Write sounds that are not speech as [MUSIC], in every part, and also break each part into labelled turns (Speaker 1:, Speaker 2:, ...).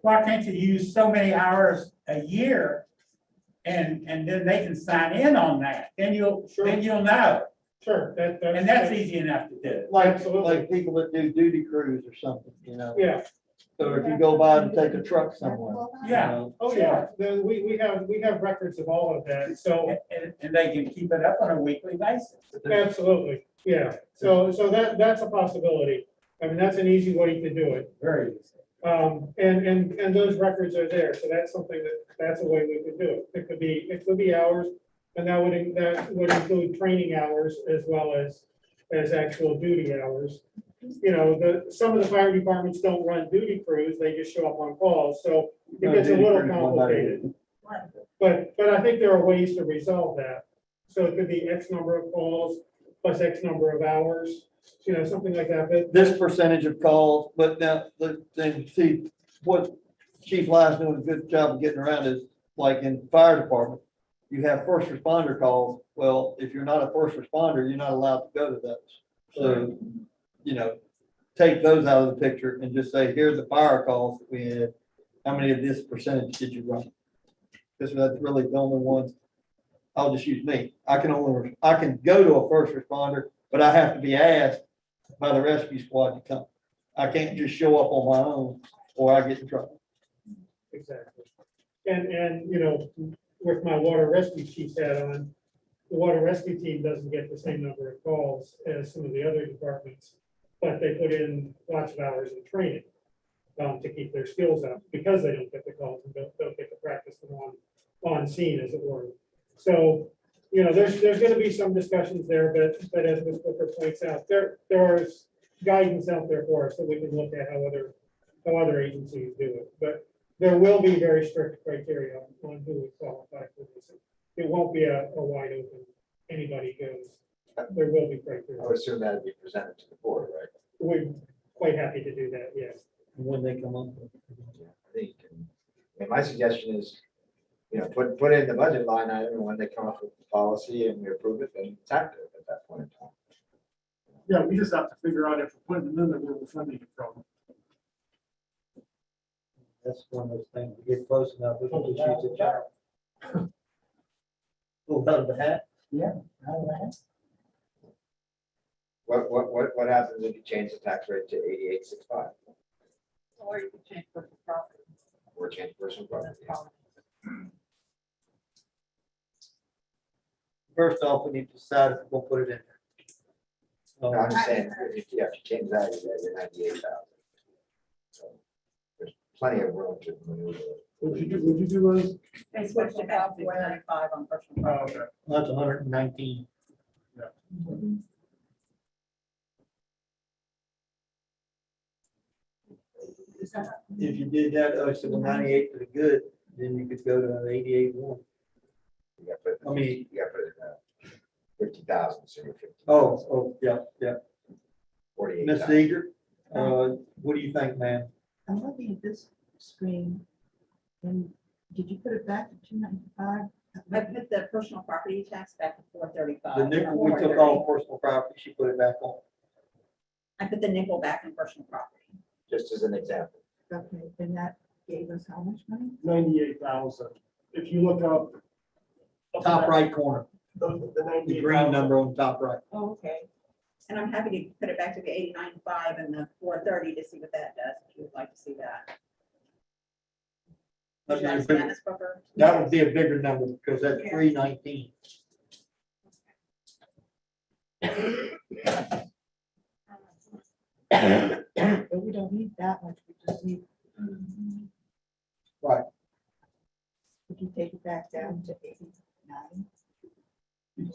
Speaker 1: why can't you use so many hours a year? And, and then they can sign in on that, then you'll, then you'll know,
Speaker 2: Sure, that, that's.
Speaker 1: and that's easy enough to do.
Speaker 3: Like,
Speaker 2: Absolutely.
Speaker 3: like people that do duty crews or something, you know?
Speaker 2: Yeah,
Speaker 3: So if you go by to take a truck somewhere. you
Speaker 1: Yeah.
Speaker 3: know,
Speaker 2: oh, yeah, the, we, we have, we have records of all of that, so,
Speaker 1: And, and- and they can keep it up on a weekly basis.
Speaker 3: there's-
Speaker 2: absolutely, yeah, so, so that, that's a possibility. I mean, that's an easy way to do it,
Speaker 1: Very easy.
Speaker 2: um, and, and, and those records are there, so that's something that, that's a way we could do it. It could be, it could be hours, and that would, in- that would include training hours as well as, as actual duty hours. You know, the, some of the fire departments don't run duty crews, they just show up on calls, so it
Speaker 3: No,
Speaker 2: gets a
Speaker 3: duty
Speaker 2: little
Speaker 3: crews, one by
Speaker 2: complicated.
Speaker 3: one.
Speaker 2: But, but I think there are ways to resolve that. So it could be X number of calls plus X number of hours, you know, something like that, but.
Speaker 3: This percentage of calls, but now, the- then see, what Chief Lyons doing a good job of getting around is, like in fire department, you have first responder calls. Well, if you're not a first responder, you're not allowed to go to those. So, you know, take those out of the picture and just say, here's the fire calls that we had. How many of this percentage did you run? Because that's really the only ones. I'll just use me. I can only, I can go to a first responder, but I have to be asked by the rescue squad to come. I can't just show up on my own or I get in trouble.
Speaker 2: Exactly. And, and, you know, with my water rescue chief's hat on, the water rescue team doesn't get the same number of calls as some of the other departments, but they put in lots of hours of training um, to keep their skills up, because they don't get the calls and don't, don't get to practice them on, on scene, as it were. So, you know, there's, there's gonna be some discussions there, but, but as Ms. Booker points out, there, there is guidance out there for us, that we can look at how other, how other agencies do it, but there will be very strict criteria on who would qualify for this. It won't be a, a wide open, anybody goes. There will be criteria.
Speaker 4: I would assume that'd be presented to the board, right?
Speaker 2: We're quite happy to do that, yes.
Speaker 3: When they come up.
Speaker 4: Yeah, I think, you can- and my suggestion is, you know, put, put it in the budget line item, and when they come up with the policy and we approve it, then it's active at that point in time.
Speaker 5: Yeah, we just have to figure out if we're putting them in, there, where we're funding it from.
Speaker 3: That's one of those things, we get close enough, we can just use the jar. [LAUGHS] Pull out of the hat.
Speaker 4: What, what, what, what happens if you change the tax rate to eighty-eight six five,
Speaker 6: Or you can change for property.
Speaker 4: or change personal property?
Speaker 3: First off, we need to decide if we're gonna put it in. Oh,
Speaker 4: No,
Speaker 3: there.
Speaker 4: I'm just saying, if you have to change that, you're at your ninety-eight thousand. There's plenty of room to maneuver.
Speaker 5: Would you do, would you do those?
Speaker 6: They switched it out to one ninety-five on personal property.
Speaker 3: Uh, That's hundred and nineteen. If you did that, oh, so the ninety-eight for the good, then you could go to an eighty-eight one.
Speaker 4: You gotta put it in-
Speaker 3: I mean-
Speaker 4: You gotta put it in fifty thousand, so you're fifty.
Speaker 3: Oh, oh, yeah, yeah.
Speaker 4: Forty-eight
Speaker 3: Ms.
Speaker 4: thousand.
Speaker 3: Eager, uh, what do you think, ma'am?
Speaker 7: I'm looking at this screen, and did you put it back to two ninety-five?
Speaker 6: I put the personal property tax back to four thirty-five.
Speaker 3: The nickel we took off personal property, she put it back on.
Speaker 6: I put the nickel back in personal property.
Speaker 4: just as an example.
Speaker 7: Okay, and that gave us how much money?
Speaker 5: Ninety-eight thousand. If you look up. up
Speaker 3: Top
Speaker 5: that-
Speaker 3: right corner,
Speaker 5: The the
Speaker 3: the
Speaker 5: 98,000.
Speaker 3: green number on top right.
Speaker 6: Oh, okay. And I'm happy to put it back to the eighty-nine five and the four thirty to see what that does, if you would like to see that.
Speaker 3: That'd
Speaker 6: Should I
Speaker 3: be a
Speaker 6: see that,
Speaker 3: big-
Speaker 6: Ms. Booker?
Speaker 3: That would be a bigger number because that's
Speaker 6: Yeah.
Speaker 3: three nineteen.
Speaker 7: But we don't need that much, we just need.
Speaker 3: Right.
Speaker 7: We can take it back down to eighty-nine.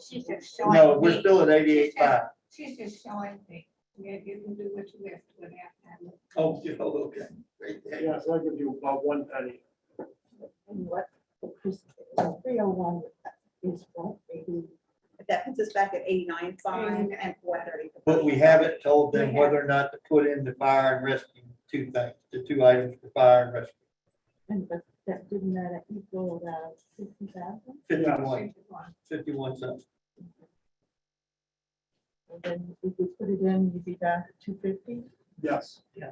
Speaker 8: She's just
Speaker 3: No,
Speaker 8: showing
Speaker 3: we're
Speaker 8: me,
Speaker 3: still at eighty-eight five.
Speaker 8: she's just showing me, yeah, you can do what you have to without having.
Speaker 3: Oh, yeah, oh, okay. Right there.
Speaker 5: Yeah, so that gives you about one penny.
Speaker 7: And what, three oh one is what, eighty?
Speaker 6: But That puts us back at eighty-nine five and four thirty.
Speaker 3: But we haven't told them whether or not to put in the fire and rescue two things, the two items for fire and rescue.
Speaker 7: And but that didn't that equal about fifty thousand?
Speaker 3: Fifty-one,
Speaker 8: She's one.
Speaker 3: fifty-one cents.
Speaker 7: And then if we put it in, you'd be down to two fifty?
Speaker 5: Yes.
Speaker 3: Yeah.